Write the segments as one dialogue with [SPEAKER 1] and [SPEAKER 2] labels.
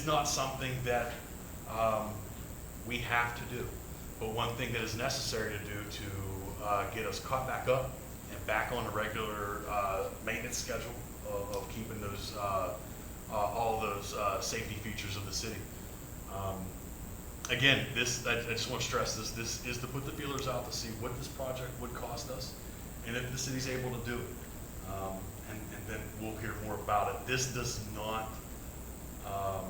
[SPEAKER 1] It's not something that um, we have to do, but one thing that is necessary to do to uh, get us caught back up and back on a regular uh, maintenance schedule of of keeping those, uh, uh, all those uh, safety features of the city. Um, Again, this, I I just want to stress this, this is to put the feelers out to see what this project would cost us and if the city's able to do it. Um, And and then we'll hear more about it. This does not um,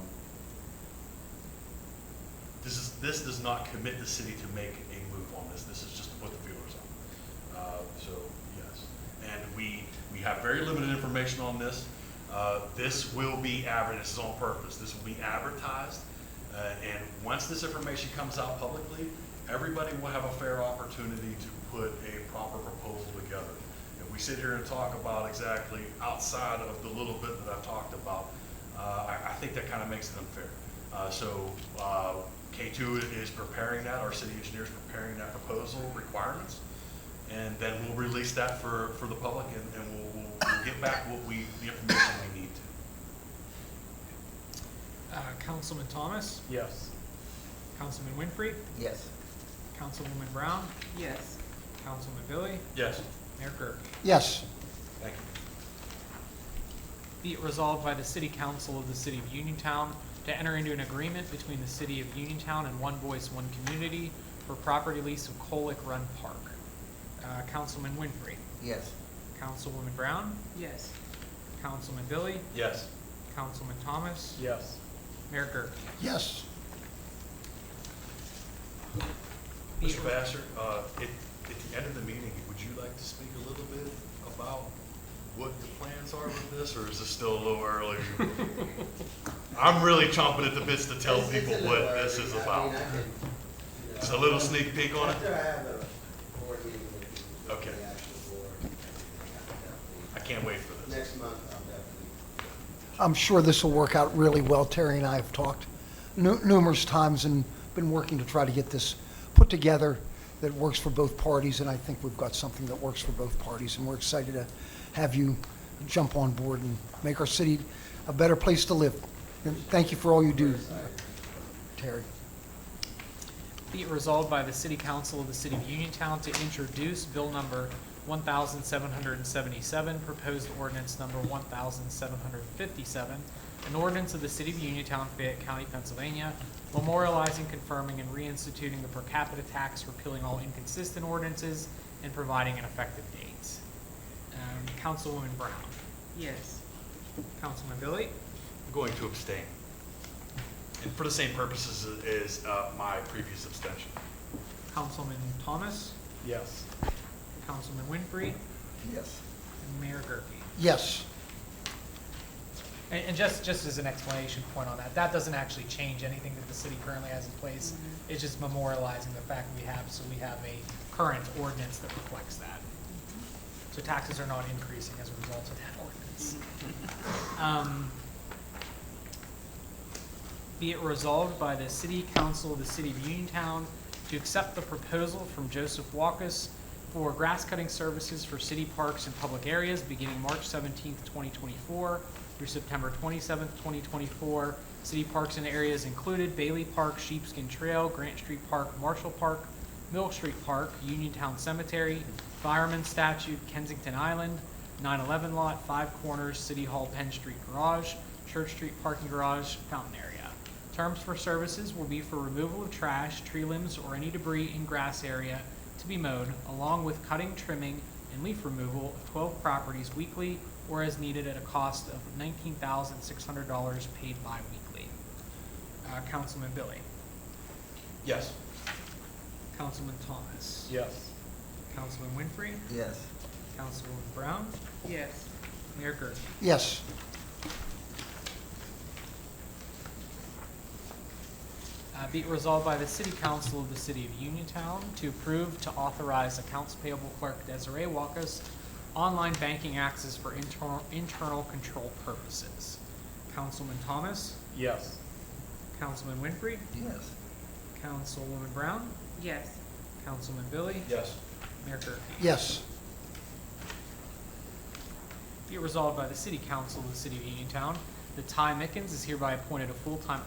[SPEAKER 1] This is, this does not commit the city to make a move on this, this is just to put the feelers out. Uh, So, yes, and we, we have very limited information on this. Uh, This will be adver, this is on purpose, this will be advertised, uh, and once this information comes out publicly, everybody will have a fair opportunity to put a proper proposal together. If we sit here and talk about exactly outside of the little bit that I've talked about, uh, I, I think that kind of makes it unfair. Uh, So uh, K2 is preparing that, our city engineer is preparing that proposal requirements, and then we'll release that for, for the public, and and we'll, we'll- we'll get back what we, the information we need to.
[SPEAKER 2] Uh, Councilman Thomas,
[SPEAKER 3] Yes.
[SPEAKER 2] Councilman Winfrey,
[SPEAKER 4] Yes.
[SPEAKER 2] Councilwoman Brown,
[SPEAKER 5] Yes,
[SPEAKER 2] Councilman Billy,
[SPEAKER 1] Yes.
[SPEAKER 2] Mayor Gerke.
[SPEAKER 4] Yes.
[SPEAKER 1] Thank you.
[SPEAKER 2] Be it resolved by the City Council of the City of Uniontown to enter into an agreement between the City of Uniontown and One Voice, One Community for property lease of Colic Run Park. Uh, Councilman Winfrey,
[SPEAKER 4] Yes.
[SPEAKER 2] Councilwoman Brown,
[SPEAKER 5] yes,
[SPEAKER 2] Councilman Billy,
[SPEAKER 1] Yes.
[SPEAKER 2] Councilman Thomas,
[SPEAKER 3] Yes.
[SPEAKER 2] Mayor Gerke.
[SPEAKER 4] Yes.
[SPEAKER 2] Be it
[SPEAKER 1] Mr. Basser, uh, at, at the end of the meeting, would you like to speak a little bit about what the plans are with this, or is this still a little early? I'm really chomping at the bits to tell
[SPEAKER 6] It's- it's
[SPEAKER 1] people
[SPEAKER 6] a little
[SPEAKER 1] what this
[SPEAKER 6] early.
[SPEAKER 1] is
[SPEAKER 6] I mean,
[SPEAKER 1] about.
[SPEAKER 6] I can, you
[SPEAKER 1] Just a
[SPEAKER 6] know,
[SPEAKER 1] little sneak peek on it?
[SPEAKER 6] After I have a board meeting with the-
[SPEAKER 1] Okay.
[SPEAKER 6] with the actual board, I can
[SPEAKER 1] I can't wait for
[SPEAKER 6] definitely-
[SPEAKER 1] this.
[SPEAKER 6] next month, I'll definitely
[SPEAKER 4] I'm sure this will work out really well. Terry and I have talked nu- numerous times and been working to try to get this put together that works for both parties, and I think we've got something that works for both parties, and we're excited to have you jump on board and make our city a better place to live. And thank you for all you do, Terry.
[SPEAKER 2] Be it resolved by the City Council of the City of Uniontown to introduce Bill Number 1,777, proposed ordinance Number 1,757, an ordinance of the City of Uniontown, Fayette County, Pennsylvania, memorializing, confirming, and reinstituting the per capita tax, repealing all inconsistent ordinances, and providing an effective date. Um, Councilwoman Brown.
[SPEAKER 5] yes,
[SPEAKER 2] Councilman Billy.
[SPEAKER 1] I'm going to abstain. And for the same purposes as uh, my previous abstention.
[SPEAKER 2] Councilman Thomas.
[SPEAKER 3] Yes.
[SPEAKER 2] Councilman Winfrey.
[SPEAKER 4] Yes.
[SPEAKER 2] And Mayor Gerke.
[SPEAKER 4] Yes.
[SPEAKER 2] And, and just, just as an explanation point on that, that doesn't actually change anything that the city currently has in place. It's just memorializing the fact we have, so we have a current ordinance that reflects that. So taxes are not increasing as a result of that ordinance. Um, Be it resolved by the City Council of the City of Uniontown to accept the proposal from Joseph Walkus for grass cutting services for city parks and public areas beginning March seventeenth, twenty twenty-four through September twenty-seventh, twenty twenty-four. City parks and areas included Bailey Park, Sheepskin Trail, Grant Street Park, Marshall Park, Mill Street Park, Uniontown Cemetery, Fireman Statue, Kensington Island, 9/11 Lot, Five Corners, City Hall, Penn Street Garage, Church Street Parking Garage, Fountain Area. Terms for services will be for removal of trash, tree limbs, or any debris in grass area to be mowed, along with cutting, trimming, and leaf removal of 12 properties weekly or as needed at a cost of $19,600 paid bi-weekly. Uh, Councilman Billy.
[SPEAKER 1] Yes.
[SPEAKER 2] Councilman Thomas.
[SPEAKER 3] Yes.
[SPEAKER 2] Councilman Winfrey.
[SPEAKER 4] Yes.
[SPEAKER 2] Councilwoman Brown.
[SPEAKER 5] yes,
[SPEAKER 2] Mayor Gerke.
[SPEAKER 4] Yes.
[SPEAKER 2] Uh, Be it resolved by the City Council of the City of Uniontown to approve to authorize Accounts Payable Clerk Desiree Walkus online banking access for internal, internal control purposes. Councilman Thomas,
[SPEAKER 3] Yes.
[SPEAKER 2] Councilman Winfrey,
[SPEAKER 4] Yes.
[SPEAKER 2] Councilwoman Brown,
[SPEAKER 5] yes,
[SPEAKER 2] Councilman Billy,
[SPEAKER 1] Yes.
[SPEAKER 2] Mayor Gerke.
[SPEAKER 4] Yes.
[SPEAKER 2] Be it resolved by the City Council of the City of Uniontown that Ty Mickens is hereby appointed a full-time